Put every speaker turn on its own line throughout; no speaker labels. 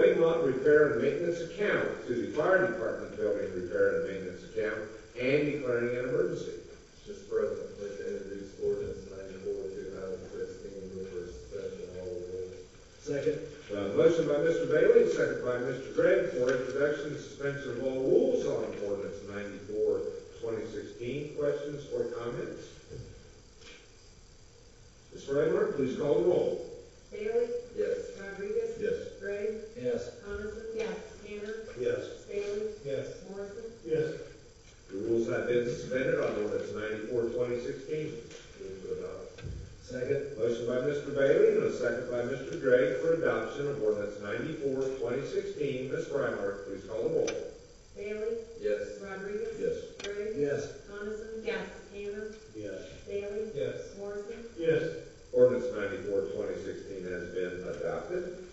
repair and maintenance account to the fire department building repair and maintenance account and declaring an emergency.
Just present, I'd like to introduce ordinance ninety-four, two thousand sixteen, move for suspension of all rules.
Second.
Uh, motion by Mr. Bailey, second by Mr. Gregg for introduction and suspension of all rules on ordinance 94, 2016. Questions or comments? Ms. Frymer, please call the roll.
Bailey?
Yes.
Rodriguez?
Yes.
Gray?
Yes.
Coniston? Yes. Tanner?
Yes.
Bailey?
Yes.
Morrison?
Yes.
The rules have been suspended on ordinance 94, 2016. Move to adopt.
Second.
Motion by Mr. Bailey and a second by Mr. Gregg for adoption of ordinance 94, 2016. Ms. Frymark, please call the roll.
Bailey?
Yes.
Rodriguez?
Yes.
Gray?
Yes.
Coniston? Yes. Tanner?
Yes.
Bailey?
Yes.
Morrison?
Yes.
Ordinance 94, 2016 has been adopted.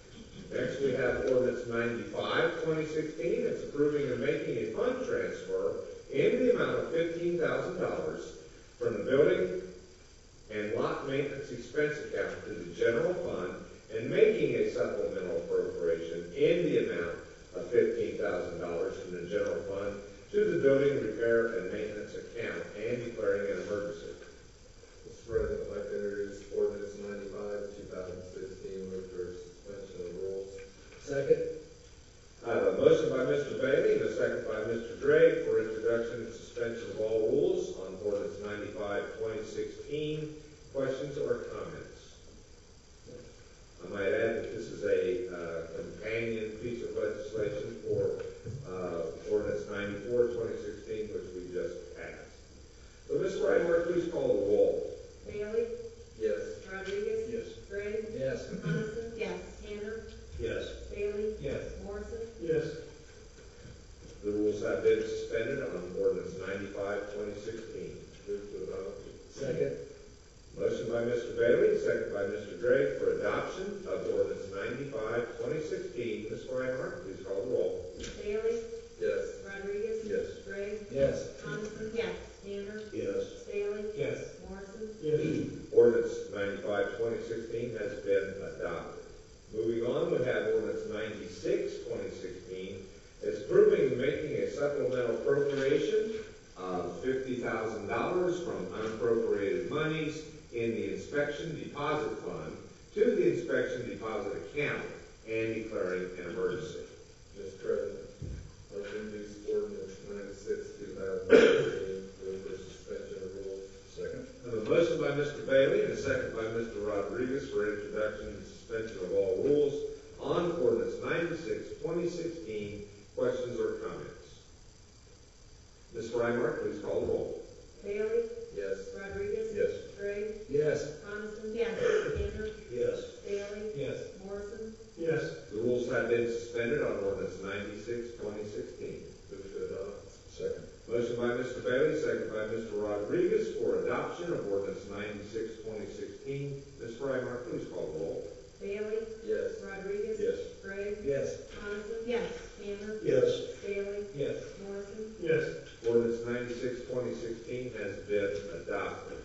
Next, we have ordinance 95, 2016. It's approving and making a fund transfer in the amount of fifteen thousand dollars from the building and lot maintenance expense account to the general fund and making a supplemental appropriation in the amount of fifteen thousand dollars from the general fund to the building repair and maintenance account and declaring an emergency.
Mr. President, I'd like to introduce ordinance ninety-five, two thousand sixteen, move for suspension of rules.
Second.
I have a motion by Mr. Bailey and a second by Mr. Gregg for introduction and suspension of all rules on ordinance 95, 2016. Questions or comments? I might add that this is a uh, companion piece of legislation for uh, ordinance 94, 2016, which we just passed. So, Ms. Frymark, please call the roll.
Bailey?
Yes.
Rodriguez?
Yes.
Gray?
Yes.
Coniston? Yes. Tanner?
Yes.
Bailey?
Yes.
Morrison?
Yes.
The rules have been suspended on ordinance 95, 2016.
Move to adopt.
Second.
Motion by Mr. Bailey, second by Mr. Gregg for adoption of ordinance 95, 2016. Ms. Frymark, please call the roll.
Bailey?
Yes.
Rodriguez?
Yes.
Gray?
Yes.
Coniston? Yes. Tanner?
Yes.
Bailey?
Yes.
Morrison?
Yes.
Ordinance 95, 2016 has been adopted. Moving on, we have ordinance 96, 2016. It's approving and making a supplemental appropriation of $50,000 from unappropriated monies in the inspection deposit fund to the inspection deposit account and declaring an emergency.
Mr. President, I'd like to introduce ordinance ninety-six, two thousand sixteen, move for suspension of rules. Second.
I have a motion by Mr. Bailey and a second by Mr. Rodriguez for introduction and suspension of all rules on ordinance 96, 2016. Questions or comments? Ms. Frymark, please call the roll.
Bailey?
Yes.
Rodriguez?
Yes.
Gray?
Yes.
Coniston? Yes. Tanner?
Yes.
Bailey?
Yes.
Morrison?
Yes.
The rules have been suspended on ordinance 96, 2016.
Move to adopt. Second.
Motion by Mr. Bailey, second by Mr. Rodriguez for adoption of ordinance 96, 2016. Ms. Frymark, please call the roll.
Bailey?
Yes.
Rodriguez?
Yes.
Gray?
Yes.
Coniston? Yes. Tanner?
Yes.
Bailey?
Yes.
Morrison?
Yes.
Ordinance 96, 2016 has been adopted.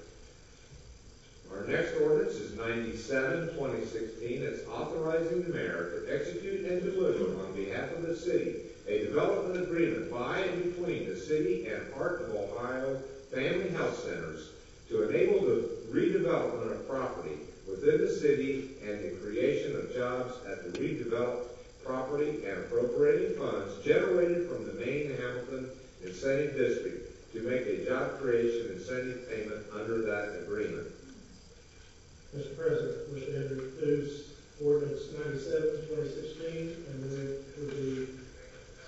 Our next ordinance is 97, 2016. It's authorizing the mayor to execute and deliver on behalf of the city a development agreement by and between the city and Heart of Ohio Family Health Centers to enable the redevelopment of property within the city and the creation of jobs at the redeveloped property and appropriating funds generated from the main Hamilton incentive district to make a job creation incentive payment under that agreement.
Mr. President, wish to introduce ordinance 97, 2016, and move for the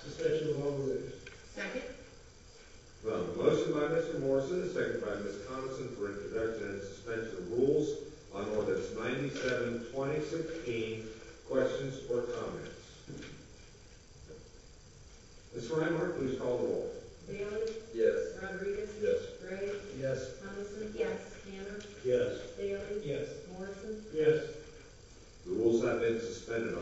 suspension of all rules.
Second?
Well, motion by Mr. Morrison, and second by Ms. Coniston for introduction and suspension of rules on ordinance 97, 2016. Questions or comments? Ms. Frymark, please call the roll.
Bailey?
Yes.
Rodriguez?
Yes.
Gray?
Yes.
Coniston? Yes. Tanner?
Yes.
Bailey?
Yes.
Morrison?
Yes.
The rules have been suspended on